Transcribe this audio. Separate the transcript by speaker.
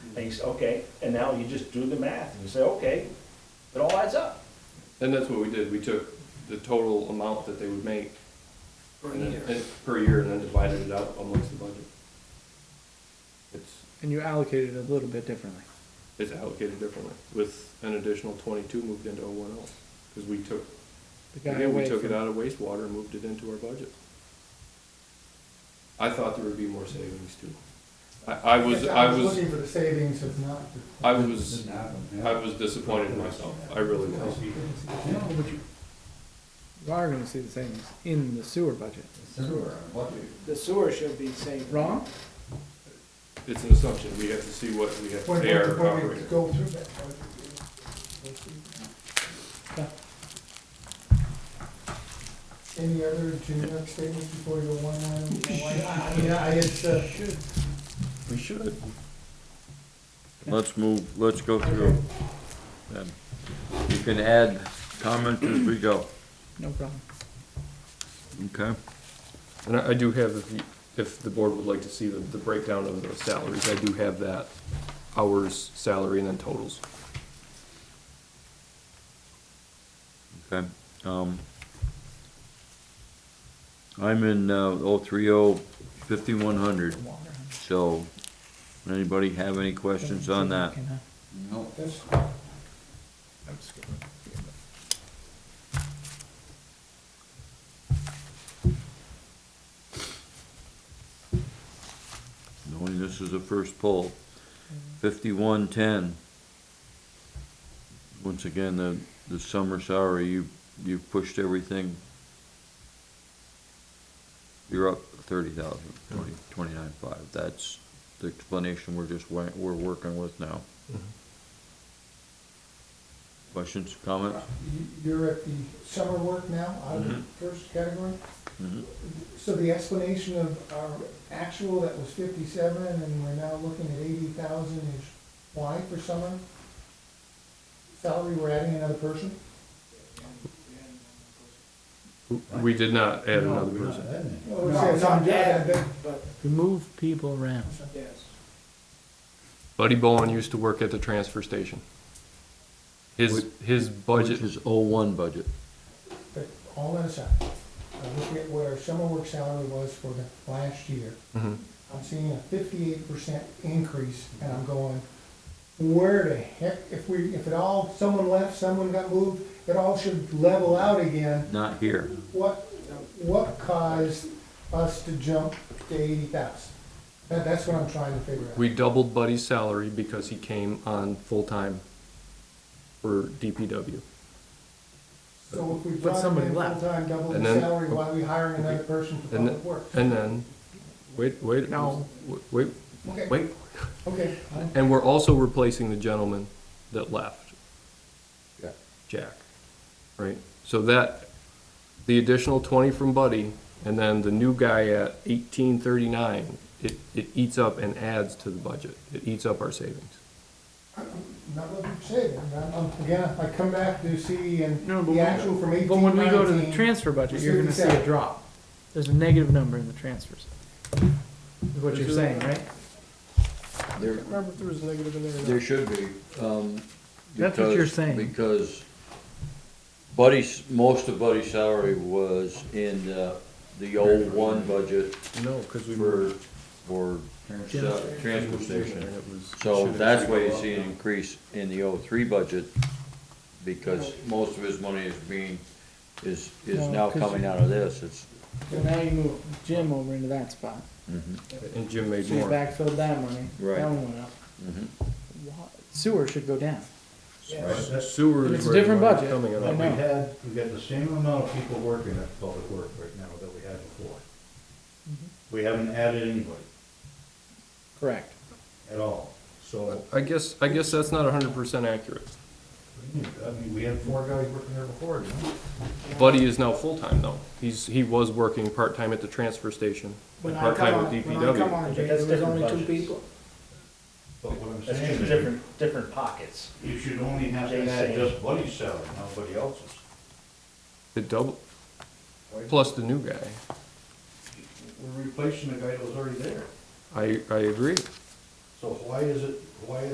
Speaker 1: And you say, okay, and now you just do the math, and you say, okay, it all adds up.
Speaker 2: And that's what we did, we took the total amount that they would make.
Speaker 3: per
Speaker 2: and then-
Speaker 3: year.
Speaker 2: and- Per year, and then divided it out amongst the budget. It's,
Speaker 4: And you allocate it a little bit differently.
Speaker 2: it's allocated differently, with an additional twenty-two moved into O one L, because we took,
Speaker 4: The guy
Speaker 2: again, we
Speaker 4: away
Speaker 2: took it
Speaker 4: from-
Speaker 2: out of wastewater and moved it into our budget. I thought there would be more savings too. I, I was, I was,
Speaker 5: Looking for the savings of not.
Speaker 2: I was, I was disappointed in myself, I really was.
Speaker 4: You are gonna see the savings in the sewer budget.
Speaker 3: The sewer should be saved.
Speaker 4: Wrong?
Speaker 2: It's an assumption, we have to see what we have to
Speaker 5: When,
Speaker 2: pay our
Speaker 5: when we
Speaker 2: operator.
Speaker 5: go through that. how would you do it? Any other generic statements before we go one line? one line? I I mean, I, it's, uh,
Speaker 6: We should. Let's move, let's go through. them. You can add comments as we go,
Speaker 4: No problem.
Speaker 6: okay?
Speaker 2: And I I do have, if you- if the board would like to see the the breakdown of those salaries, I do have that, hours, salary, and then totals.
Speaker 6: Okay, um. I'm in, uh, oh, three oh, fifty-one hundred,
Speaker 4: Water.
Speaker 6: so, anybody have any questions on that?
Speaker 4: Can, uh,
Speaker 5: that's-
Speaker 6: Knowing this is the first poll, fifty-one ten. Once again, the, the summer salary, you, you've pushed everything. You're up thirty thousand, twenty, twenty-nine five, that's the explanation we're just, wa- we're working with now. Questions, comments?
Speaker 5: you- You're at the summer work now, out of the
Speaker 2: Mm-hmm.
Speaker 5: first category?
Speaker 6: Mhm.
Speaker 5: So the explanation of our actual that was fifty-seven and we're now looking at eighty thousand is why for summer? Salary, we're adding another person?
Speaker 2: We did not add another person.
Speaker 5: Well, it's- it's on debt, but-
Speaker 3: But,
Speaker 4: You move people around.
Speaker 3: yes.
Speaker 2: Buddy Bowen used to work at the transfer station. His, his
Speaker 6: Which
Speaker 2: budget,
Speaker 6: is oh one budget.
Speaker 5: But all that aside, I look at what our summer work salary was for the last year.
Speaker 2: Mhm.
Speaker 5: I'm seeing a fifty-eight percent increase, and I'm going, where the heck, if we, if it all, someone left, someone got moved, it all should level out again.
Speaker 6: Not here.
Speaker 5: What, what caused us to jump to eighty thousand? That, that's what I'm trying to figure out.
Speaker 2: we doubled Buddy's salary because he came on full-time for DPW.
Speaker 5: So if we
Speaker 4: But
Speaker 5: brought him
Speaker 4: somebody
Speaker 5: in
Speaker 4: left.
Speaker 5: full-time, double
Speaker 2: And
Speaker 5: the
Speaker 2: then-
Speaker 5: salary, why are we hiring another person for
Speaker 2: And
Speaker 5: public work?
Speaker 2: And then, wait, wait.
Speaker 4: No.
Speaker 2: Wait,
Speaker 5: Okay,
Speaker 2: wait.
Speaker 5: okay.
Speaker 2: And we're also replacing the gentleman that left. Jack, right? So that, the additional twenty from Buddy, and then the new guy at eighteen thirty-nine, it, it eats up and adds to the budget. It eats up our savings.
Speaker 5: Not what you said, I'm, I'm, again, I come back to see and
Speaker 4: No, but
Speaker 5: the
Speaker 4: when-
Speaker 5: actual from eighteen
Speaker 4: But when we go to the
Speaker 5: nineteen,
Speaker 4: transfer budget, you're gonna see a
Speaker 5: 57.
Speaker 4: drop. There's a negative number in the transfers. Is what you're
Speaker 6: There's a-
Speaker 4: saying, right?
Speaker 6: There,
Speaker 4: Remember, there was a negative in
Speaker 6: There should be, um.
Speaker 4: That's what you're
Speaker 6: because-
Speaker 4: saying.
Speaker 6: Because Buddy's, most of Buddy's salary was in the, the old one budget
Speaker 2: No, because
Speaker 6: for, for sa- transfer station. So that's why you see an increase in the O three budget, because most of his money is being, is, is
Speaker 4: No,
Speaker 6: now
Speaker 4: 'cause
Speaker 6: coming
Speaker 4: you-
Speaker 6: out of this, it's.
Speaker 4: So now you move Jim over into that spot.
Speaker 2: And Jim made
Speaker 4: So you
Speaker 2: more. Mm-hmm.
Speaker 4: backfilled that money.
Speaker 6: Right.
Speaker 4: That one went up.
Speaker 6: Mhm.
Speaker 4: Wa- Sewer should go down.
Speaker 2: Sewer is
Speaker 4: It's a
Speaker 2: where the
Speaker 4: different
Speaker 2: money's
Speaker 4: budget.
Speaker 2: coming out
Speaker 4: I
Speaker 2: of.
Speaker 4: know.
Speaker 7: We had, we got the same amount of people working at public work right now that we had before.
Speaker 5: Mm-hmm.
Speaker 7: We haven't added anybody
Speaker 4: Correct.
Speaker 7: at all, so,
Speaker 2: I guess, I guess that's not hundred percent accurate.
Speaker 7: I mean, we had four guys working there before, didn't we?
Speaker 2: Buddy is now full-time though. He's, he was working part-time at the transfer station,
Speaker 3: When
Speaker 2: and
Speaker 3: I come
Speaker 2: part-time
Speaker 3: on,
Speaker 2: with
Speaker 3: when I come
Speaker 2: DPW.
Speaker 3: on, Jay,
Speaker 1: But
Speaker 3: there
Speaker 1: that's
Speaker 3: was
Speaker 1: different
Speaker 3: only two
Speaker 1: budgets.
Speaker 3: people.
Speaker 7: But what I'm
Speaker 1: That's
Speaker 7: saying
Speaker 1: just
Speaker 7: is,
Speaker 1: different, different pockets.
Speaker 7: you should only have to add just Buddy's salary, nobody else's.
Speaker 2: It double, plus the new guy.
Speaker 7: We're replacing the guy that was already there,
Speaker 2: I, I agree.
Speaker 5: So why is it, why is